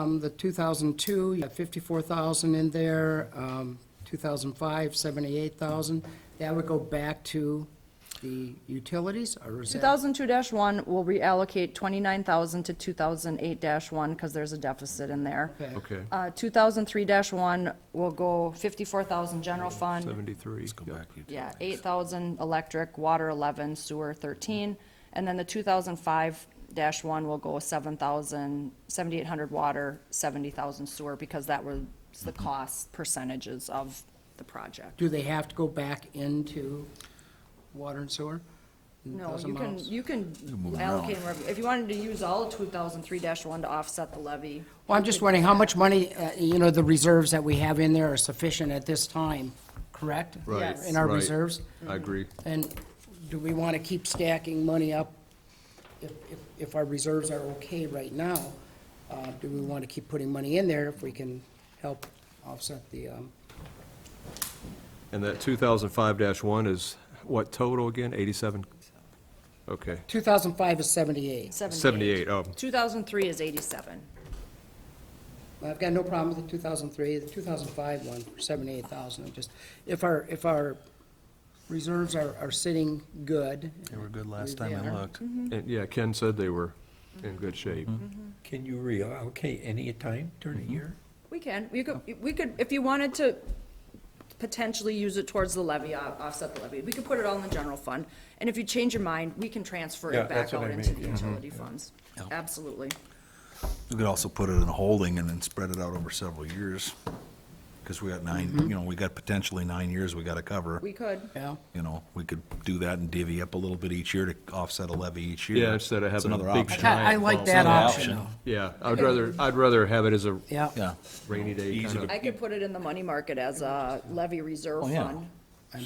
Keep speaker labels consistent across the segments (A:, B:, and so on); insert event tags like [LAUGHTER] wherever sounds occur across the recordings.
A: Um, the 2002, you have 54,000 in there, um, 2005, 78,000. That would go back to the utilities, or is that?
B: 2002-1 will reallocate 29,000 to 2008-1 because there's a deficit in there.
C: Okay,
B: Uh, 2003-1 will go 54,000 general fund,
C: 73. yeah.
B: yeah, 8,000 electric, water 11, sewer 13, and then the 2005-1 will go 7,000, 7,800 water, 70,000 sewer, because that was the cost percentages of the project.
A: Do they have to go back into water and sewer?
B: No,
A: Those
B: you can,
A: amounts?
B: you can allocate, them wherever- if you wanted to use all of 2003-1 to offset the levy,
A: Well, I'm just wondering how much money, uh, you know, the reserves that we have in there are sufficient at this time, correct?
C: Right,
B: Yes.
A: In our
C: right.
A: reserves?
B: mm.
C: I agree.
A: And do we want to keep stacking money up if, if, if our reserves are okay right now? Uh, do we want to keep putting money in there if we can help offset the, um,
C: And that 2005-1 is what total again? 87? Okay,
A: two thousand five is seventy-eight.
C: 78, oh.
B: 2003 is 87.
A: I've got no problem with the two thousand three, the two thousand five one, seventy-eight thousand, I'm just, if our, if our reserves are, are sitting good.
D: They were good last
A: They
D: time I
A: are.
D: looked.
B: Mm-hmm.
C: And, yeah, Ken said they were in good shape.
E: Can you reallocate any time during the year?
B: We can, we could,
E: Oh.
B: we could, if you wanted to potentially use it towards the levy, uh, offset the levy, we could put it all in the general fund. And if you change your mind, we can transfer
E: Yeah, Mm-hmm.
B: it back
E: that's what
B: out
E: I
B: into
E: mean,
B: the utility funds. Absolutely.
D: You could also put it in a holding and then spread it out over several years. Because we got nine, you know, we got potentially nine years we got to cover.
B: Mm-hmm. We could.
A: Yeah,
D: You know, we could do that and divvy up a little bit each year to offset a levy each year.
C: Yeah, instead of
D: It's
C: having a
D: another
C: big
D: option.
C: giant
A: I like
C: vault.
A: that
D: Another
A: option,
C: Yeah, I'd rather, I'd rather have it as a
A: yeah.
D: Yeah,
C: rainy day
D: Easy
C: kind
D: to-
C: of,
B: I could put it in the money market as a levy reserve
D: Oh, yeah.
B: fund.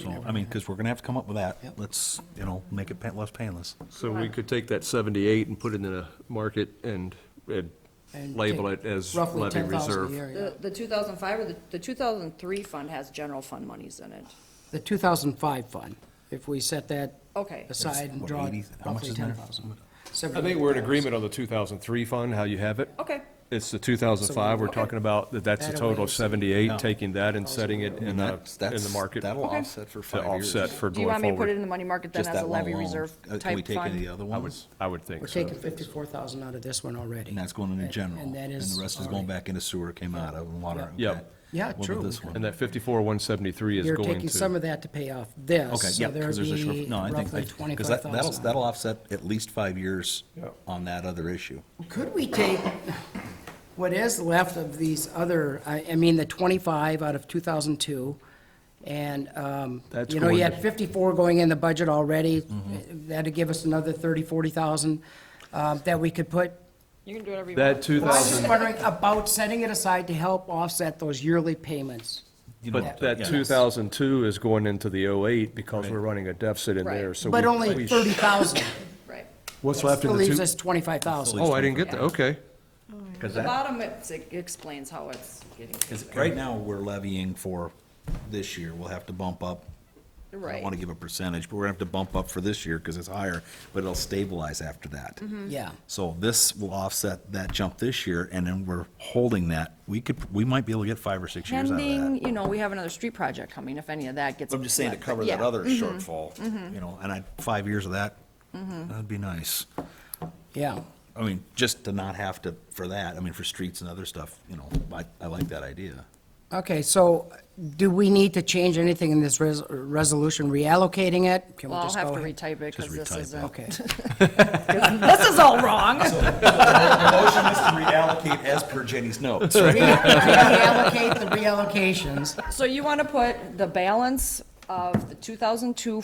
D: so, I mean, because we're going to have to come up with that. Let's, you know, make it pa- less painless.
C: so we could take that 78 and put it in a market and, and
A: And
C: label
A: take
C: it as
A: Roughly
C: levy
A: ten thousand a
C: reserve.
A: year, yeah.
B: The, the 2005 or the, the 2003 fund has general fund monies in it.
A: The 2005 fund, if we set that
B: Okay.
A: aside and
D: What,
A: draw
D: 80? How much
A: roughly
D: is in there?
A: 10,000.
C: I think we're in agreement on the 2003 fund, how you have it.
B: Okay.
C: It's the 2005, we're talking about, that that's a
A: That
C: total
A: away.
C: of 78,
D: Yeah.
C: taking that and setting it in a,
D: That's-
C: in
D: that's-
C: the market
D: That'll
C: to
B: Okay.
D: offset for five years.
C: offset for
B: Do you
C: going
B: want me to put it in
C: forward.
B: the money market then
D: Just
B: as
D: that
B: a
D: one
B: levy
D: alone.
B: reserve
D: Uh, Can we
B: type
D: take any of the
B: fund?
D: other ones?
C: I would think
A: We're
C: so.
A: taking 54,000 out of this one already.
D: And that's going into
A: And-
D: general.
A: And that is.
D: the rest is
A: already-
D: going back into sewer came out of and water.
C: Yeah.
D: okay.
A: Yeah,
D: What about
A: true.
D: this one?
C: And that 54, 173 is
A: You're
C: going
A: taking some
C: to,
A: of that to pay off this.
D: Okay, yeah, because there's a short, no, I think,
A: So there
D: because that, that'll, that'll offset at least five years
C: Yeah.
D: on that other issue.
A: Could we take [LAUGHS] what is left of these other, I, I mean, the 25 out of 2002, and, um,
C: That's
A: you know, you
C: going
A: had
C: to-
A: 54 going in the budget already,
D: Mm-hmm.
A: that'd give us another 30, 40,000 um, that we could put.
B: You can do whatever you want.
C: that
A: I was just
C: 2000,
A: wondering about setting it aside to help offset those yearly payments.
D: You know,
C: but that
D: yeah.
C: 2002 is going into the 08 because we're running a deficit in
B: Right.
C: there, so.
A: But
C: we-
A: only
C: we sh-
A: 30,000.
C: [LAUGHS]
B: Right.
C: What's left
A: That
C: in the
A: leaves
C: two?
A: us 25,000.
C: Oh, I didn't get that, okay.
D: 'Cause
B: The
D: that-
B: bottom, it it explains how it's getting.
D: Because right now, we're levying for this year, we'll have to bump up. I don't
B: Right.
D: want to give a percentage, but we're gonna have to bump up for this year because it's higher, but it'll stabilize after that.
B: Mm-hmm.
A: Yeah.
D: So this will offset that jump this year, and then we're holding that. We could, we might be able to get five or six years out of that.
B: Pending, you know, we have another street project coming, if any of that gets.
D: I'm just saying to
B: but
D: cover that
B: yeah. Mm-hmm.
D: other shortfall, you know, and I, five years of that,
B: Mm-hmm.
D: that'd be nice.
A: Yeah,
D: I mean, just to not have to, for that, I mean, for streets and other stuff, you know, I, I like that idea.
A: okay, so do we need to change anything in this res- resolution, reallocating it? Can we
B: Well, I'll
A: just go
B: have to
A: ahead?
B: retype it, because
D: Just
B: this
D: retype it.
B: [LAUGHS] isn't,
A: Okay,
B: this is all wrong.
D: [LAUGHS] The motion is to reallocate as per Jenny's notes.
A: Re- reallocate the reallocations,
B: So you want to put the balance of the two thousand two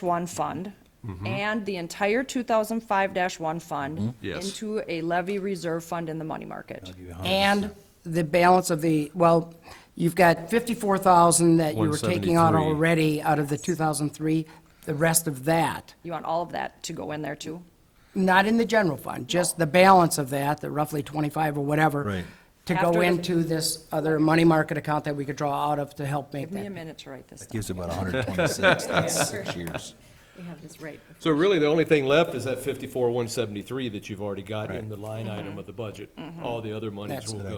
B: one fund
D: Mm-hmm.
B: and the entire two thousand five one fund
C: Yes.
B: into a levy reserve fund in the money market.
A: and the balance of the, well, you've got 54,000 that you were taking out
C: 173.
A: already out of the 2003, the rest of that,
B: You want all of that to go in there too?
A: not in the general fund, just the balance of that, the roughly 25 or whatever.
D: Right.
A: To
B: After
A: go
B: the-
A: into this other money market account that we could draw out of to help make
B: Give me a
A: that.
B: minute to write this down.
D: Gives about hundred twenty-six, that's six years.
F: We have this right.
C: So really, the only thing left
A: Mm-hmm.
C: is that fifty-four, one seventy-three that you've already got in the line item of the budget. All the other monies
A: That's-
C: will go.